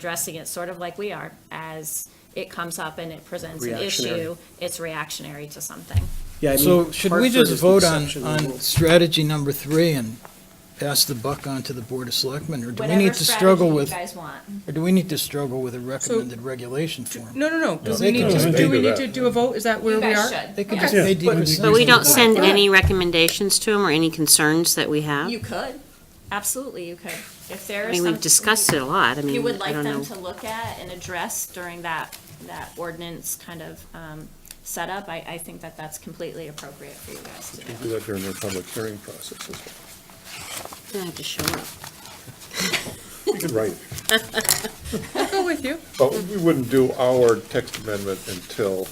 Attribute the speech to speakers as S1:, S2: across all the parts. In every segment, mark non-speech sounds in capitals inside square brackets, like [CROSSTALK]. S1: addressing it sort of like we are, as it comes up and it presents an issue,
S2: Reactionary.
S1: it's reactionary to something.
S2: Yeah, I
S3: So
S2: mean,
S3: should we
S2: Hartford
S3: just
S2: is the
S3: vote on,
S2: exception to the
S3: on
S2: rule.
S3: strategy number three and pass the buck on to the Board of Selectmen? Or do we
S1: Whatever
S3: need to struggle
S1: strategy
S3: with,
S1: You guys want.
S3: or do we need to struggle with a recommended regulation form?
S4: No, no, no, because
S3: they
S4: we need
S3: can
S4: to,
S3: just
S4: do
S5: do
S4: we need
S5: that.
S4: to do a vote, is that where
S1: You
S4: we
S1: guys
S4: are?
S1: should.
S3: They could
S1: yeah.
S3: just, they
S6: But we don't send
S4: Right.
S6: any recommendations to them or any concerns that we have?
S1: You could, absolutely, you could. If there
S6: I
S1: is
S6: mean, we've
S1: something
S6: discussed it a lot, I mean,
S1: You would
S6: I
S1: like
S6: don't
S1: them
S6: know.
S1: to look at and address during that, that ordinance kind of um, setup, I, I think that that's completely appropriate for you guys to do.
S5: Do that during their public hearing process as well.
S6: They have to show up.
S5: We could write,
S4: I'll go
S1: [LAUGHS]
S4: with you.
S5: but we wouldn't do our text amendment until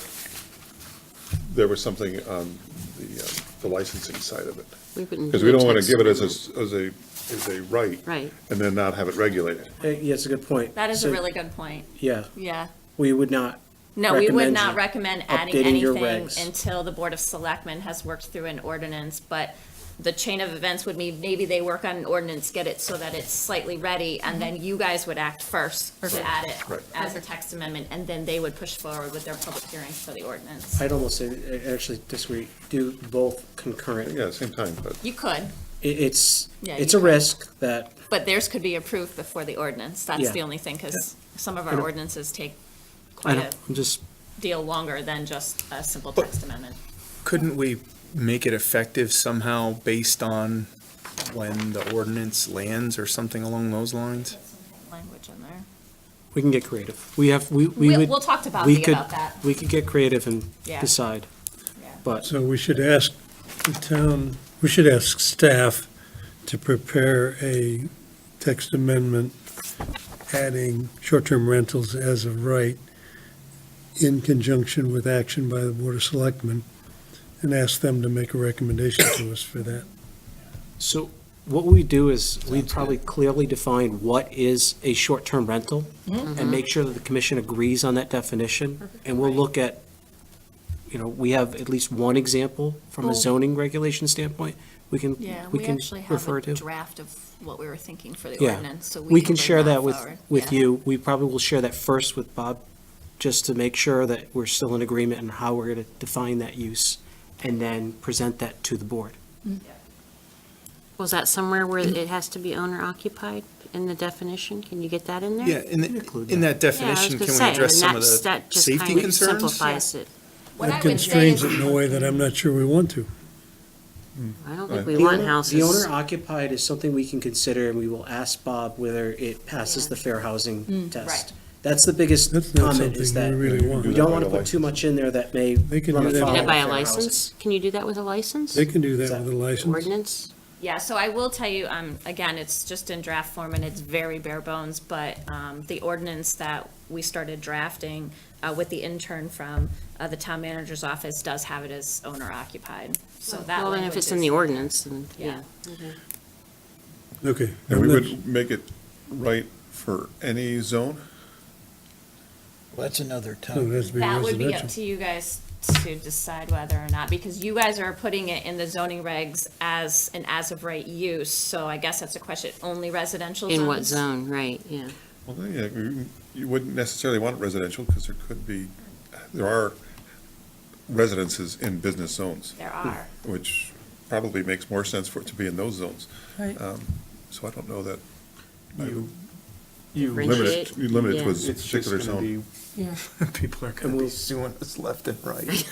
S5: there was something on the, uh, the licensing side of it.
S6: We wouldn't.
S5: Because
S6: do
S5: we
S6: a
S5: don't want to
S6: text
S5: give it as
S6: amendment.
S5: a, as a, as a right.
S6: Right.
S5: And then not have it regulated.
S2: Uh, Yeah, it's a good point.
S1: That is a
S2: So,
S1: really good point,
S2: Yeah,
S1: yeah.
S2: we would not,
S1: No, we would
S2: Recommend
S1: not
S2: you
S1: recommend adding
S2: updating your
S1: anything
S2: regs.
S1: until the Board of Selectmen has worked through an ordinance, but the chain of events would mean maybe they work on an ordinance, get it so that it's slightly ready, and then you guys would act first to add it
S5: Right.
S1: as a text amendment, and then they would push forward with their public hearings for the ordinance.
S2: I'd almost say, I actually disagree, do both concurrent.
S5: Yeah, same time, but
S1: You could,
S2: It- It's,
S1: Yeah,
S2: it's
S1: you
S2: a
S1: could.
S2: risk that,
S1: but theirs could be approved before the ordinance, that's
S2: Yeah.
S1: the only thing, because some of our
S2: don't-
S1: ordinances take
S2: I
S1: quite a
S2: don't, I'm just,
S1: deal longer than just a simple text amendment.
S7: Couldn't we make it effective somehow based on when the ordinance lands or something along those lines?
S1: Language in there.
S2: we can get creative. We have, we, we
S1: We'll,
S2: would,
S1: we'll talk to
S2: we
S1: Bobby
S2: could,
S1: about that,
S2: we could get creative and
S1: Yeah.
S2: decide.
S1: Yeah.
S2: But
S8: So we should ask the town, we should ask staff to prepare a text amendment adding short-term rentals as of right in conjunction with action by the Board of Selectmen, and ask them to make a recommendation to us for that.
S2: So what we do is we'd probably clearly define what is a short-term rental
S1: Mm-hmm.
S2: and make sure that the commission agrees on that definition. And we'll look at, you know, we have at least one example from a
S1: Well-
S2: zoning regulation standpoint we can,
S1: Yeah,
S2: we
S1: we
S2: can
S1: actually have
S2: refer
S1: a
S2: to.
S1: draft of what we were thinking for the
S2: Yeah.
S1: ordinance, so we.
S2: We can
S1: bring
S2: share that with,
S1: forward.
S2: with
S1: Yeah.
S2: you. We probably will share that first with Bob, just to make sure that we're still in agreement on how we're going to define that use and then present that to the board.
S6: Was that somewhere where it has to be owner occupied in the definition? Can you get that in there?
S7: Yeah, in, the-
S2: Include
S7: in that
S6: Yeah, I was
S7: definition,
S6: gonna
S7: can
S6: say,
S7: we address
S6: and
S7: some of
S6: that's-
S7: the
S6: that just
S7: safety
S6: kind of
S7: concerns?
S6: Simplifies it.
S1: What I
S8: That
S1: would say
S8: constrains
S1: is,
S8: it in a way that I'm not sure we want to.
S6: I don't think we
S2: The
S6: want
S2: owner-
S6: houses.
S2: The owner occupied is something we can consider, and we will ask Bob whether it passes
S1: Yeah. Mm.
S2: the fair housing
S1: Right.
S2: test. That's the biggest
S8: That's not
S2: comment, is that
S8: something we really want.
S2: we
S5: Do
S2: don't
S5: that
S2: want
S5: by
S2: to
S5: the
S2: put too much in there that may
S8: They can
S2: run
S8: do that
S2: afoul
S6: Can
S2: of
S6: it by a
S2: fair housing.
S6: license? Can you do that with a license?
S8: They can do that with a license.
S6: Ordinance?
S1: yeah, so I will tell you, um, again, it's just in draft form and it's very bare bones, but, um, the ordinance that we started drafting, uh, with the intern from, uh, the town manager's office does have it as owner occupied, so that
S6: Well,
S1: language
S6: then if it's in the
S1: is-
S6: ordinance, then, yeah.
S1: Yeah.
S8: Okay.
S5: and we would make it right for any zone.
S3: Well, That's another
S8: No, it
S3: topic.
S8: has to be
S1: That would be up
S8: residential.
S1: to you guys to decide whether or not, because you guys are putting it in the zoning regs as an as-of-right use, so I guess that's a question, only residential zones?
S6: In what zone, right, yeah.
S5: Well, then, yeah, you- you wouldn't necessarily want it residential because there could be, there are residences in business zones.
S1: There are.
S5: which probably makes more sense for it to be in those zones.
S4: Right.
S5: Um, So I don't know that, you
S7: You
S5: limit it, you limit it to a
S6: Differentiate,
S7: It's just
S5: particular
S7: gonna
S5: zone.
S7: be, [LAUGHS] people are gonna be suing us left and
S6: [LAUGHS]
S7: right.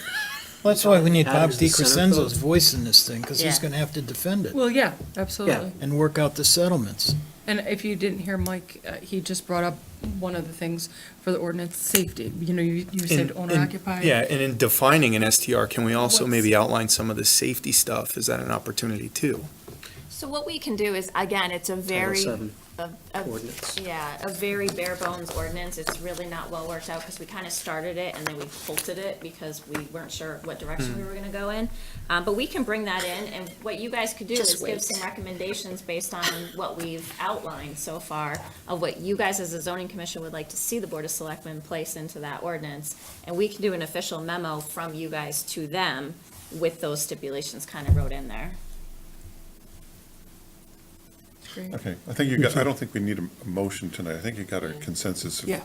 S3: That's why we need
S2: That
S3: Bob
S2: is the center
S3: DiCrescenzo's
S2: vote.
S3: voice in this thing, because he's
S6: Yeah.
S3: going to have to defend it
S4: Well, yeah, absolutely.
S3: and work out the settlements.
S4: And if you didn't hear Mike, uh, he just brought up one of the things for the ordinance, safety. You know, you you said
S7: In-
S4: owner
S7: in-
S4: occupied.
S7: Yeah, and in defining an STR, can we also
S4: What's-
S7: maybe outline some of the safety stuff? Is that an opportunity too?
S1: So what we can do is, again, it's a very,
S2: Title VII
S1: a- a-
S2: ordinance.
S1: yeah, a very bare bones ordinance, it's really not well worked out, because we kind of started it and then we halted it because we weren't sure what
S6: Hmm.
S1: direction we were gonna go in. Um, but we can bring that in, and what you guys could do
S6: Just
S1: is give
S6: wait.
S1: some recommendations based on what we've outlined so far of what you guys as a zoning commission would like to see the Board of Selectmen place into that ordinance. And we can do an official memo from you guys to them with those stipulations kind of wrote in there.
S4: Great.
S7: [LAUGHS]
S5: Okay, I think you got, I don't think we need a a motion tonight. I think you got a consensus of
S4: Yeah.